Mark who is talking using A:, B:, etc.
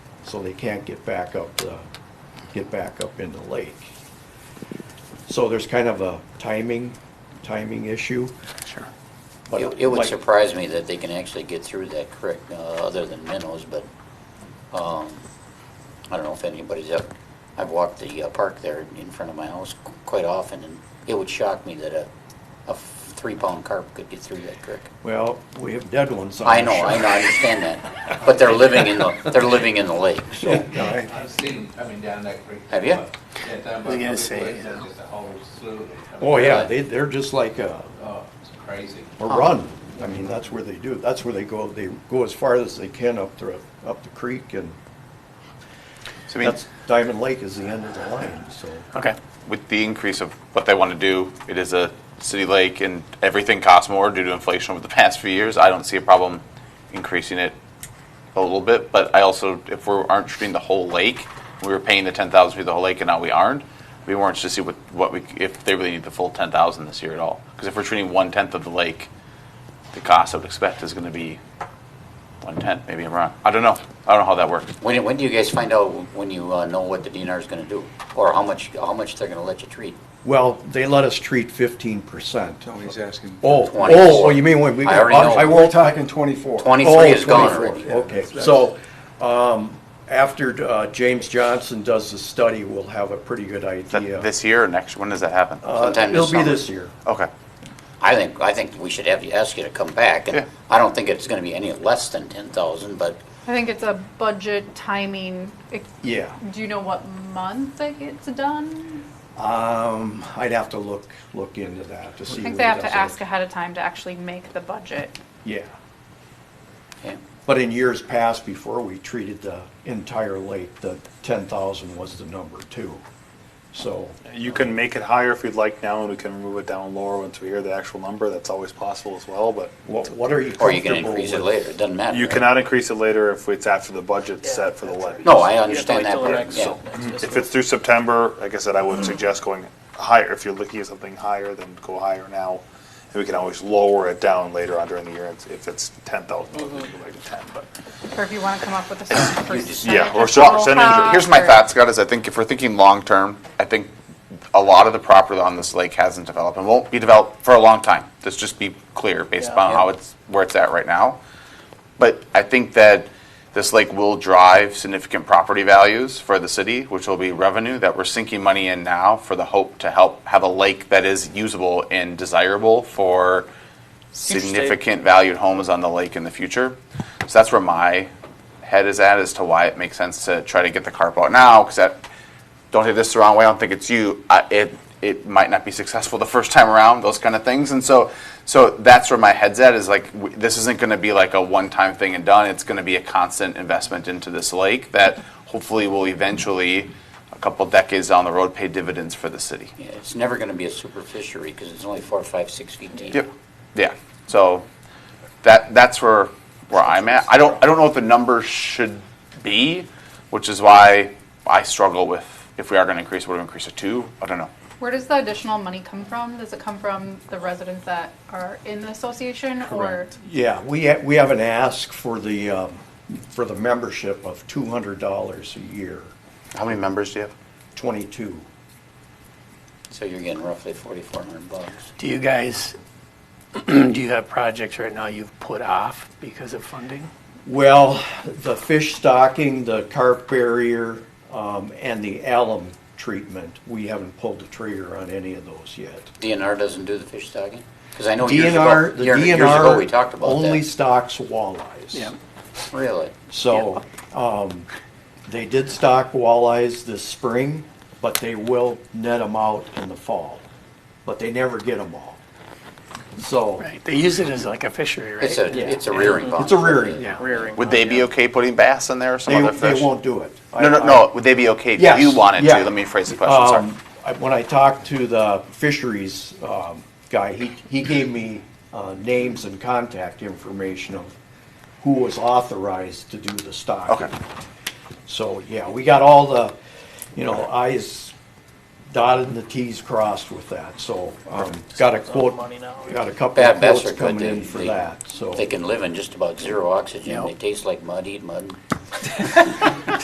A: so they can't get back up the, get back up in the lake. So there's kind of a timing, timing issue.
B: Sure.
A: but
C: It it would
A: like-
C: surprise me that they can actually get through that creek, uh, other than minnows, but um, I don't know if anybody's up. I've walked the uh, park there in front of my house qu- quite often, and it would shock me that a, a three-pound carp could get through that creek.
A: Well, we have dead ones on the
C: I know, I
A: shore.
C: know, I understand that, but they're living in the, they're living in the lake, so.
A: No, I-
D: I've seen them coming down that creek.
C: Have ya?
D: Yeah, down by
B: They're gonna
D: Public
B: say,
D: Way,
B: you
D: there's
B: know.
D: just a whole slew of them coming
A: Oh, yeah,
C: Right.
A: they, they're just like a,
D: down. Oh, it's crazy.
A: a run. I mean, that's where they do, that's where they go, they go as far as they can up the, up the creek and
B: So I mean,
A: that's, Diamond Lake is the end of the line, so.
B: okay.
E: With the increase of what they want to do, it is a city lake and everything costs more due to inflation over the past few years. I don't see a problem increasing it a little bit, but I also, if we aren't treating the whole lake, we were paying the ten thousand for the whole lake and now we aren't, we weren't to see what, what we, if they really need the full ten thousand this year at all. Because if we're treating one-tenth of the lake, the cost I would expect is going to be one-tenth, maybe I'm wrong. I don't know. I don't know how that works.
C: When, when do you guys find out when you uh, know what the DNR is gonna do? Or how much, how much they're gonna let you treat?
A: Well, they let us treat fifteen percent. Oh,
F: He's asking.
A: oh,
C: 20.
A: oh, you mean when we.
C: I already know.
A: I
F: We're
A: won't talk.
F: talking 24.
C: Twenty-three
A: Oh,
C: is gone
A: 24,
C: already.
A: Okay, so, um, after, uh, James Johnson does the study, we'll have a pretty good
E: Is that
A: idea.
E: this year or next? When does that happen?
A: Uh,
C: Sometime this
A: It'll be
C: summer.
A: this year.
E: Okay.
C: I think, I think we should have you, ask you to come back,
E: Yeah.
C: and I don't think it's gonna be any less than ten thousand, but
G: I think it's a budget timing. It-
A: Yeah,
G: Do you know what month it gets done?
A: um, I'd have to look, look into that to see.
G: I think
A: what
G: they have
A: it
G: to
A: does.
G: ask ahead of time to actually make the budget.
A: Yeah,
C: yeah,
A: but in years past, before we treated the entire lake, the ten thousand was the number two, so.
H: You can make it higher if you'd like now, and we can remove it down lower once we hear the actual number. That's always possible as well, but
A: What, what are you comfortable
C: or
A: with?
C: you can increase it later, it doesn't matter.
H: you cannot increase it later if it's after the budget's set for the levy.
C: No, I understand that part, yeah.
B: Mm-hmm.
H: If it's through September, like I said, I would suggest going higher. If you're looking at something higher, then go higher now. And we can always lower it down later on during the year if it's ten thousand, go back to ten, but.
G: Or if you want to come up with a certain percentage.
H: Yeah, or
G: of
H: so-
G: total
H: percentage, or-
G: cost,
E: Here's my
G: or-
E: thoughts, Scott, is I think if we're thinking long-term, I think a lot of the property on this lake hasn't developed and won't be developed for a long time. Let's just be clear based upon how it's, where it's at right now. But I think that this lake will drive significant property values for the city, which will be revenue that we're sinking money in now for the hope to help have a lake that is usable and desirable for significant valued homes on the lake in the future. So that's where my head is at as to why it makes sense to try to get the carp out now, because that, don't take this the wrong way, I don't think it's you, I, it, it might not be successful the first time around, those kind of things. And so, so that's where my head's at, is like, w- this isn't gonna be like a one-time thing and done, it's gonna be a constant investment into this lake that hopefully will eventually, a couple decades down the road, pay dividends for the city.
C: Yeah, It's never gonna be a super fishery, because it's only four, five, six feet deep.
E: Yep. Yeah. So that that's where where I'm at. I don't I don't know what the number should be, which is why I struggle with if we are going to increase, would we increase it to? I don't know.
G: Where does the additional money come from? Does it come from the residents that are in the association or?
A: Yeah, we, ha- we have an ask for the, um, for the membership of two hundred dollars a year,
E: How many members do you have?
A: twenty-two.
C: So you're getting roughly forty-four hundred bucks.
B: Do you guys, do you have projects right now you've put off because of funding?
A: Well, the fish stocking, the carp barrier, um, and the alum treatment, we haven't pulled the trigger on any of those yet.
C: DNR doesn't do the fish stocking? Because I know years ago,
A: DNR, the
C: year- years ago, we
A: DNR
C: talked about
A: only
C: that.
A: stocks walleyes.
C: Really?
A: So, um, they did stock walleyes this spring, but they will net them out in the fall. But they never get them all. So,
B: Right, they use it as like a fishery, right?
C: It's a,
A: Yeah.
C: it's a rearing pond.
A: it's a rearing.
B: Yeah, rearing.
E: Would they be okay putting bass in there or some
A: They,
E: other
A: they
E: fish?
A: won't do it. I-
E: No, no,
A: I-
E: no. Would they be okay if
A: Yes,
E: you wanted
A: yeah.
E: to? Let me phrase the question. Sorry.
A: Um, I- When I talked to the fisheries um, guy, he, he gave me uh, names and contact information of who was authorized to do the stocking.
E: Okay.
A: So, yeah, we got all the, you know, i's dotted and the t's crossed with that, so um, got a quote, got a couple of
C: Bad bass
A: quotes
C: are good.
A: coming
C: They-
A: in for
C: they-
A: that, so.
C: They can live in just about zero oxygen. They taste like mud, eat mud.